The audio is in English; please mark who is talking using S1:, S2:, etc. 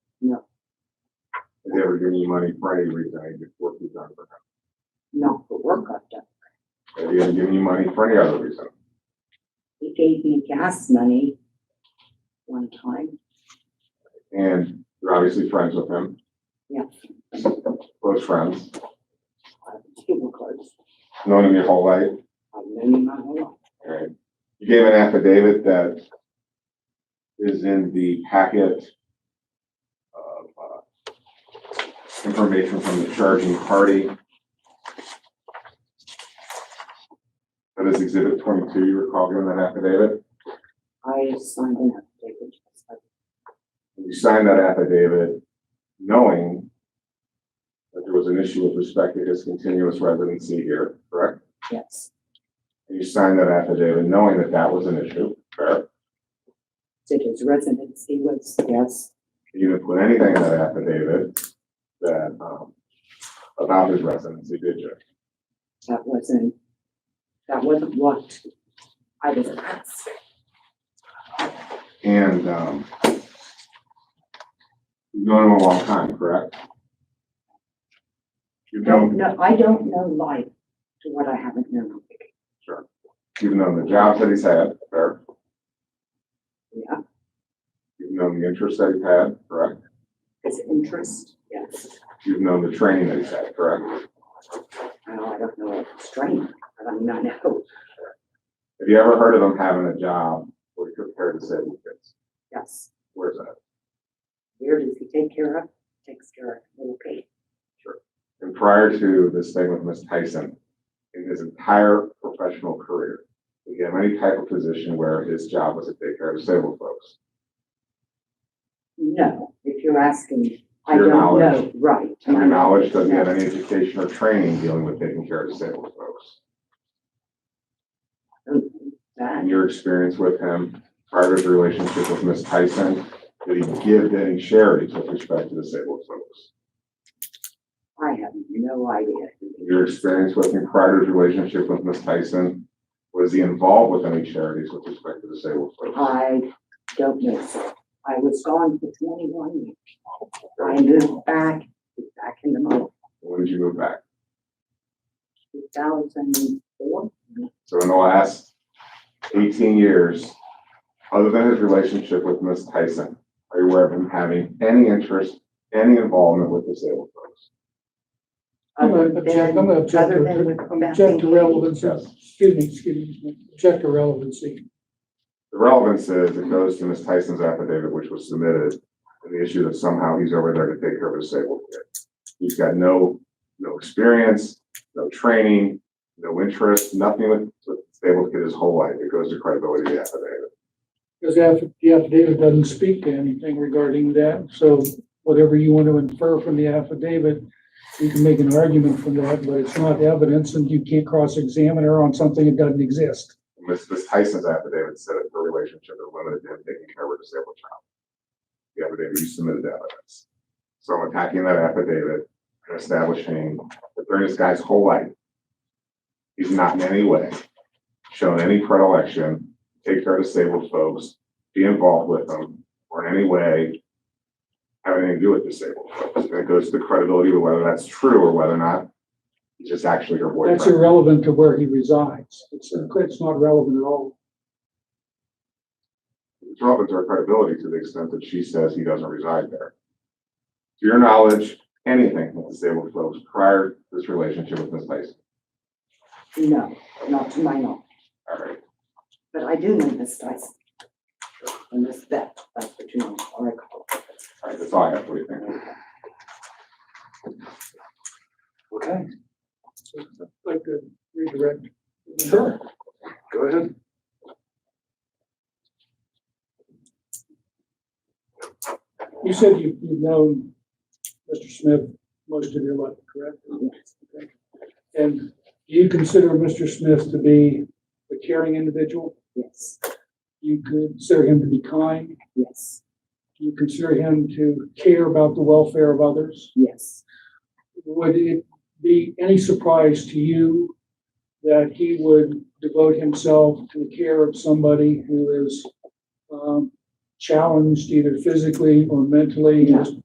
S1: never get any money Friday reason, I just work these out for
S2: No, for work I've done.
S1: him. I didn't give any money for any other reason.
S2: He gave me gas money one time.
S1: And you're obviously friends with him,
S2: Yeah,
S1: close friends,
S2: I was super close.
S1: known him your whole life.
S2: I've known him my whole life.
S1: And you gave an affidavit that is in the packet of, uh, information from the charging party. That is exhibit twenty-two, you recall giving that affidavit?
S2: I signed an affidavit.
S1: you signed that affidavit knowing that there was an issue with respect to his continuous residency here, correct?
S2: Yes,
S1: And you signed that affidavit knowing that that was an issue, correct?
S2: did his residency was, yes,
S1: You didn't put anything in that affidavit that, um, about his residency, did you?
S2: that wasn't, that wasn't what I was asked.
S1: And, um, you've known him a long time, correct? You've
S2: No,
S1: known,
S2: no, I don't know life to what I haven't known.
S1: you've known the jobs that he's had, correct?
S2: Yeah,
S1: You've known the interests that he's had, correct?
S2: his interest, yes.
S1: You've known the training that he's had, correct?
S2: Well, I don't know if it's strange, but I mean, I know,
S1: Have you ever heard of them having a job where you prepare disabled kids?
S2: yes.
S1: Where's that?
S2: Where does he take care of? Takes care of little Kate.
S1: And prior to this thing with Ms. Tyson, in his entire professional career, did he have any type of position where his job was to take care of disabled folks?
S2: No, if you're asking, I
S1: Your
S2: don't know,
S1: knowledge.
S2: right.
S1: To your knowledge, does he have
S2: No.
S1: any education or training dealing with taking care of disabled folks?
S2: Mm, That,
S1: And your experience with him, prior to his relationship with Ms. Tyson, did he give any charities with respect to disabled folks?
S2: I have no idea.
S1: your experience with him prior to his relationship with Ms. Tyson? Was he involved with any charities with respect to disabled folks?
S2: I don't know, sir. I was gone for twenty-one years. I moved back, back in the month,
S1: When did you move back?
S2: two thousand and four.
S1: So in the last eighteen years, other than his relationship with Ms. Tyson, are you aware of him having any interest, any involvement with disabled folks?
S3: I'm gonna object, I'm gonna object
S2: Other than with
S3: to, object to
S2: Bethany.
S3: relevancy,
S1: Yes.
S3: excuse me, excuse me, object to relevancy.
S1: The relevance is it goes to Ms. Tyson's affidavit, which was submitted, and the issue that somehow he's over there to take care of a disabled kid. He's got no, no experience, no training, no interest, nothing with, with disabled kid his whole life. It goes to credibility of the affidavit.
S3: Because the aff- the affidavit doesn't speak to anything regarding that, so whatever you want to infer from the affidavit, you can make an argument from that, but it's not evidence and you can't cross-examine her on something that doesn't exist.
S1: Ms. Ms. Tyson's affidavit said that her relationship is limited to him taking care of a disabled child. The affidavit, you submitted the evidence. So I'm attacking that affidavit and establishing that during this guy's whole life, he's not in any way shown any predilection, to take care of disabled folks, be involved with them, or in any way have anything to do with disabled folks. And it goes to the credibility of whether that's true or whether or not he's just actually your boyfriend.
S3: That's irrelevant to where he resides. It's, it's not relevant at all.
S1: It's relevant to her credibility to the extent that she says he doesn't reside there. To your knowledge, anything with disabled folks prior to this relationship with Ms. Tyson?
S2: No, not to my knowledge,
S1: All right,
S2: but I do know Miss Dyson. And Miss Beth, that's what you know, or I call her.
S1: all right, that's all I have. What do you think?
S3: Okay. Like to redirect. Sure.
S1: Go ahead.
S3: You said you- you've known Mr. Smith most of your life, correct? Okay. And do you consider Mr. Smith to be a caring individual?
S2: Yes,
S3: You consider him to be kind?
S2: yes,
S3: You consider him to care about the welfare of others?
S2: yes,
S3: Would it be any surprise to you that he would devote himself to the care of somebody who is um, challenged either physically or mentally,
S2: No.
S3: just